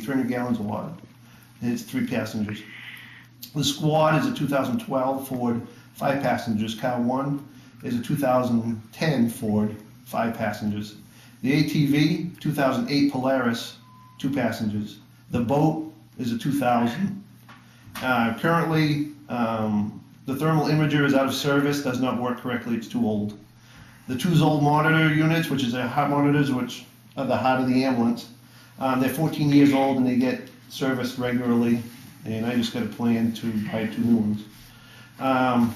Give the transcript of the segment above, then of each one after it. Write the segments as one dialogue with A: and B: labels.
A: 300 gallons of water. And it's three passengers. The Squad is a 2012 Ford, five passengers. Car one is a 2010 Ford, five passengers. The ATV, 2008 Polaris, two passengers. The boat is a 2000. Uh, Currently, um, the thermal imager is out of service, does not work correctly, it's too old. The two Zoll monitor units, which is the heart monitors, which are the heart of the ambulance, um, they're 14 years old and they get serviced regularly, and I just got a plan to buy two new ones. Um,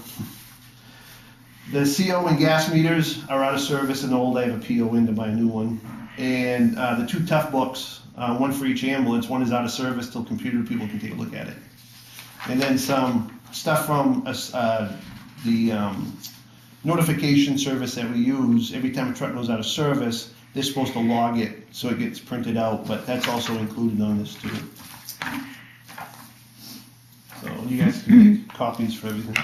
A: The CO and gas meters are out of service and old, I have a PO in to buy a new one. And uh, the two tough books, uh, one for each ambulance, one is out of service till computer people can take a look at it and then some stuff from us, uh, the um, notification service that we use. Every time a truck goes out of service, they're supposed to log it so it gets printed out, but that's also included on this too. So you guys can make copies for everything.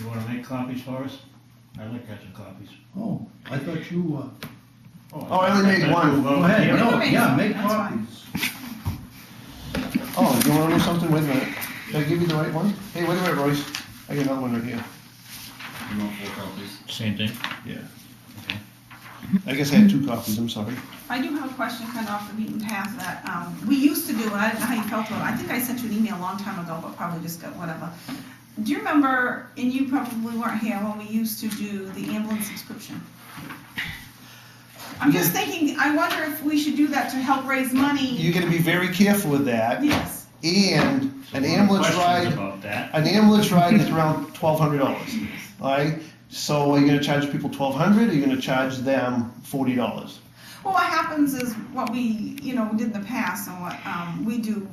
B: You wanna make copies for us? I like catching copies.
C: Oh, I thought you, uh,
A: Oh, I only made one.
C: go ahead,
B: Yeah.
C: no,
D: make
C: yeah,
D: some,
C: make
D: that's fine.
C: copies.
A: Oh, you wanna do something? Wait a minute. Did I give you the right one? Hey, wait a minute, Royce. I got another one right here.
E: You want four copies?
B: Same thing.
A: Yeah. I guess I had two copies, I'm sorry.
D: I do have a question kind of off the beaten path that, um, we used to do, and I don't know how you felt about it, I think I sent you an email a long time ago, but probably just got whatever. Do you remember, and you probably weren't here, when we used to do the ambulance subscription? I'm just thinking, I wonder if we should do that to help raise money,
A: You gotta be very careful with that,
D: yes.
A: and an ambulance ride
B: About that.
A: an ambulance ride is around twelve hundred dollars, right? So are you gonna charge people twelve hundred, or are you gonna charge them forty dollars?
D: Well, what happens is what we, you know, did in the past and what um, we do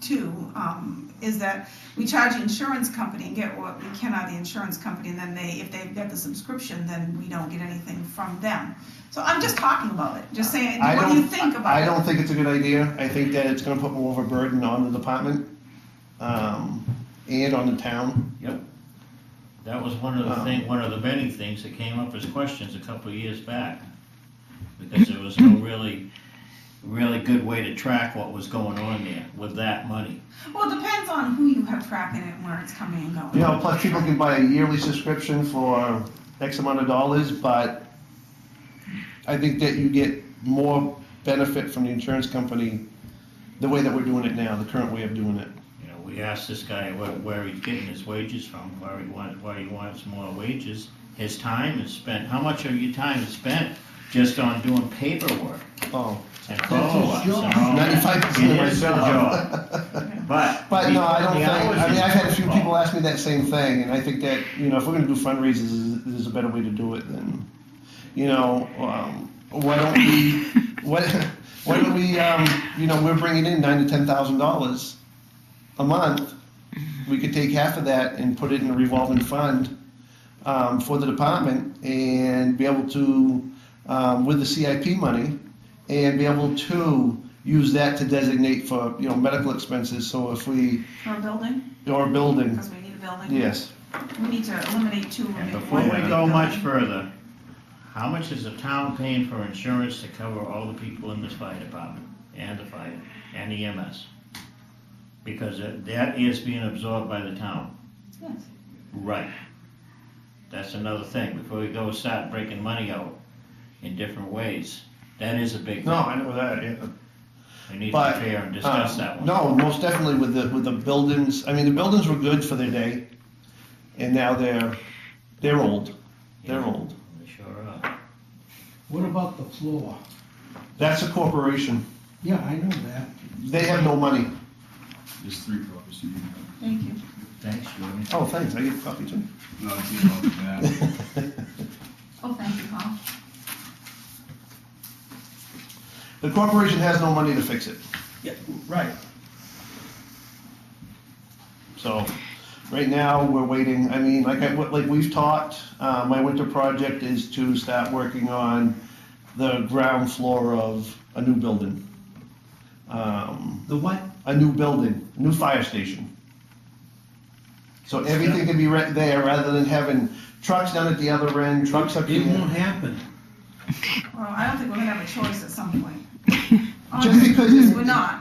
D: too, um, is that we charge the insurance company and get what we can out of the insurance company, and then they, if they've got the subscription, then we don't get anything from them. So I'm just talking about it, just saying,
A: I
D: what do you
A: don't-
D: think about it?
A: I don't think it's a good idea, I think that it's gonna put more of a burden on the department, um, and on the town.
B: That was one of the
A: Um,
B: thing, one of the many things that came up as questions a couple of years back. Because there was no really, really good way to track what was going on there with that money.
D: Well, it depends on who you have tracking it and where it's coming and going.
A: You know, plus people can buy a yearly subscription for X amount of dollars, but I think that you get more benefit from the insurance company the way that we're doing it now, the current way of doing it.
B: You know, we asked this guy where, where he's getting his wages from, where he wants, why he wants more wages. His time is spent, how much of your time is spent just on doing paperwork
A: Oh,
B: and follow-ups and all
C: job.
B: that?
A: ninety-five percent of
B: It
A: my
B: is the
A: job.
B: job. But.
A: But no, I don't
B: the
A: think,
B: hours
A: I mean,
B: is-
A: I've had a few people ask me that same thing, and I think that, you know, if we're gonna do fundraisers, is- there's a better way to do it than, you know, um, why don't we, what, why don't we, um, you know, we're bringing in nine to ten thousand dollars a month. We could take half of that and put it in a revolving fund, um, for the department and be able to, um, with the CIP money, and be able to use that to designate for, you know, medical expenses, so if we,
D: For a building,
A: or building,
D: because we need a building.
A: yes.
D: We need to eliminate two.
B: And
D: and make
B: before
D: one
B: we
D: big
B: go much
D: building.
B: further, how much is the town paying for insurance to cover all the people in this fire department and the fire and the EMS? Because it- that is being absorbed by the town.
D: Yes.
B: Right. That's another thing. Before we go start breaking money out in different ways, that is a big
A: No,
B: thing.
A: I know that, yeah.
B: We need to
A: But, um,
B: be fair and discuss that one.
A: No, most definitely with the, with the buildings, I mean, the buildings were good for their day, and now they're, they're old, they're old.
B: They Sure are.
C: What about the floor?
A: That's a corporation,
C: Yeah, I know that.
A: they have no money.
E: There's three copies you can have.
D: Thank you.
B: Thanks, Julie.
A: Oh, thanks, I get a copy too.
E: No, it's not about that.
D: Oh, thank you, Paul.
A: The corporation has no money to fix it.
E: Yeah, right.
A: So, right now, we're waiting, I mean, like I, like we've talked, uh, my winter project is to start working on the ground floor of a new building. Um,
C: The what?
A: a new building, new fire station. So everything can be right there, rather than having trucks down at the other end, trucks up
C: It won't
A: here.
C: happen.
D: Well, I don't think we're gonna have a choice at some point. on
A: Just
D: it,
A: because
D: because
A: you-
D: we're not.